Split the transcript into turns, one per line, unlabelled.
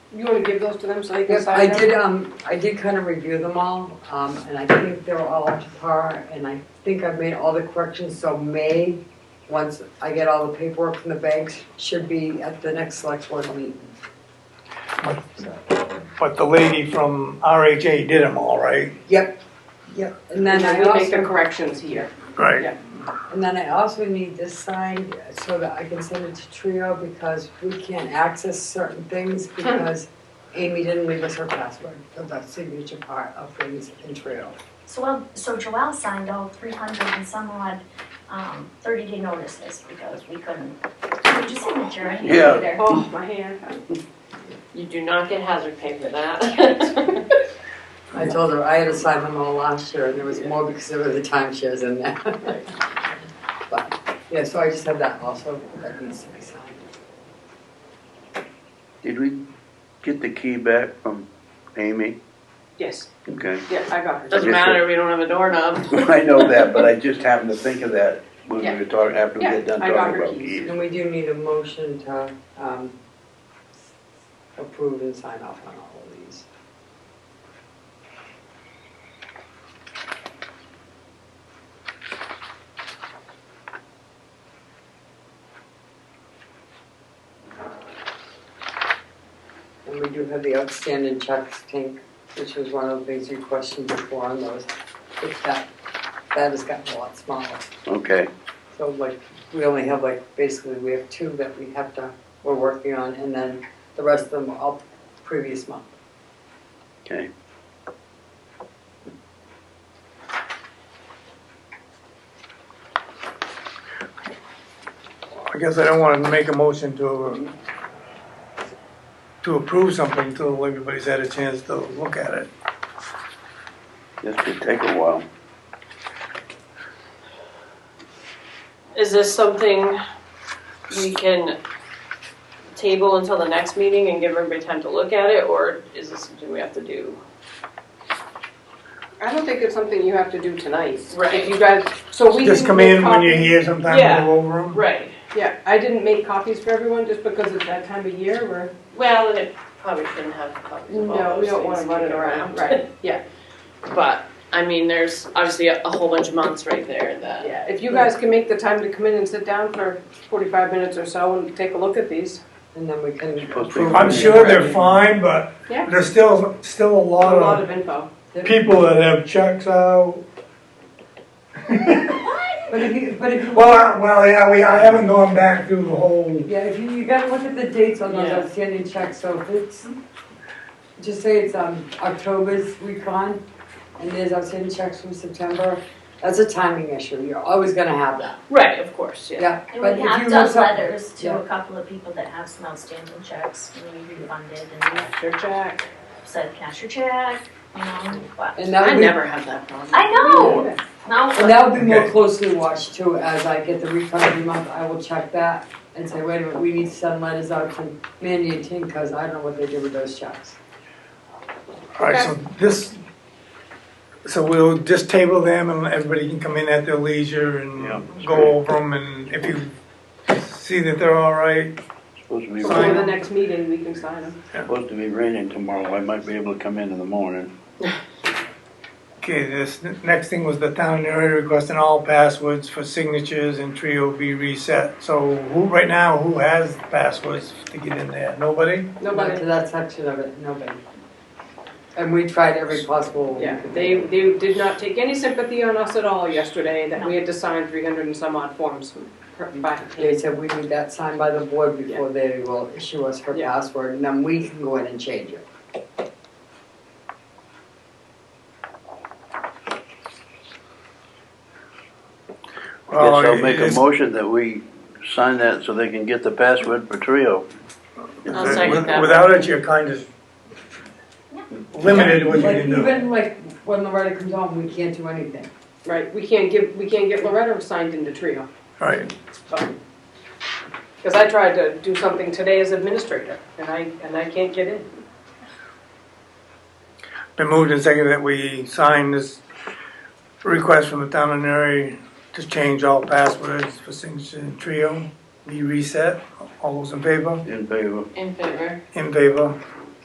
You wanna give those to them so they can
Yes,
sign
I
them?
did, um, I did kind of review them all, um, and I think they're all up to par, and I think I've made all the corrections, so May, once I get all the paperwork from the banks, should be at the next select board meeting.
But the lady from RHA did them all, right?
Yep, yep, and then
And
I
then we make the
also,
corrections here.
Right.
and then I also need this signed so that I can send it to Trio, because we can't access certain things, because Amy didn't leave us her password, for the signature part of things in Trio.
So, well, so Joelle signed all three hundred and some odd, um, thirty day notices because we couldn't, we just didn't adjourn it
Yeah.
either.
Oh, my hand.
You do not get hazard pay for that.
I told her I had to sign them all last year, and there was more because there were the timeshares in there. But, yeah, so I just had that also, that needs to be signed.
Did we get the key back from Amy?
Yes,
Okay.
yeah, I got her.
Does-
Doesn't matter, we don't have a doorknob.
I know that, but I just happened to think of that when we
Yeah.
were talking, after we
Yeah,
got done
I got
talking
her
about
keys.
keys.
And we do need a motion to, um, approve and sign off on all of these. And we do have the outstanding checks, Tink, which was one of the things you questioned before on those. If that, that has gotten a lot smaller.
Okay,
So like, we only have like, basically, we have two that we have to, we're working on, and then the rest of them are all previous month.
okay.
I guess I don't want to make a motion to, uh, to approve something until everybody's had a chance to look at it.
This could take a while.
Is this something we can table until the next meeting and give everybody time to look at it, or is this something we have to do?
I don't think it's something you have to do tonight.
Right.
If you guys, so we.
Just
didn't
come
make
in when you're
copies-
here sometime, and
Yeah.
go over them.
Right.
Yeah, I didn't make copies for everyone just because it's that time of year where
Well, and it probably shouldn't have copies of all
No, we
those
don't wanna
things
run it
kicking
around, right, yeah,
But, I mean, there's obviously a, a whole bunch of months right there that,
yeah, if you guys can make the time to come in and sit down for forty-five minutes or so and take a look at these.
And then we can
Supposed to be
approve.
I'm
them.
sure they're fine, but
Yeah.
there's still, still
A
a lot
lot
of
of info.
people that have checks out.
But if you, but if you,
Well, I- well, yeah, we, I haven't gone back through the whole,
yeah, if you, you gotta look at the dates on those
Yeah.
outstanding checks, so if it's, just say it's, um, October's week on, and there's outstanding checks from September, that's a timing issue, you're always gonna have that,
right, of course, yeah.
yeah.
And
But if
we
you
have
want
done
some-
letters
yeah.
to a couple of people that have some outstanding checks, and we refunded, and we
Sure, Jack.
said cash your check, you know, but.
And that
I
would be
never had that problem.
I
Oh,
know,
And
no,
that will be more
Okay.
closely watched too, as I get the refund every month, I will check that and say, wait a minute, we need to send letters out to Mandy and Tink, cause I don't know what they did with those checks.
alright, so this, so we'll just table them and everybody can come in at their leisure
Yeah.
and go over them and if you see that they're alright,
Supposed to be,
Sign
For the
them.
rain-
next meeting, we can sign them.
supposed to be raining tomorrow. I might be able to come in in the morning.
Okay, this n- next thing was the town area requesting all passwords for signatures and Trio be reset. So who, right now, who has passwords to get in there? Nobody?
Not
Nobody,
To that section of it, nobody. And we tried every possible. we
yeah,
could
they,
do.
they did not take any sympathy on us at all yesterday, that we had to sign three hundred and some odd forms per- by
They said we need that signed by the board before they will issue us her
Yeah.
password, and then we can go in and change it.
Yes,
Well,
I'll make a
it's-
motion that we sign that so they can get the password for Trio.
I'll second
with-
that.
Without it, you're kind of limited what you
Like
can do.
even like when Loretta comes home, we can't do anything.
Right, we can't give, we can't get Loretta signed into Trio.
Right,
Because I tried to do something today as administrator, and I, and I can't get in.
been moved and seconded that we sign this request from the town area to change all passwords for signature and Trio be reset. All those in favor?
In favor.
In favor.
In favor.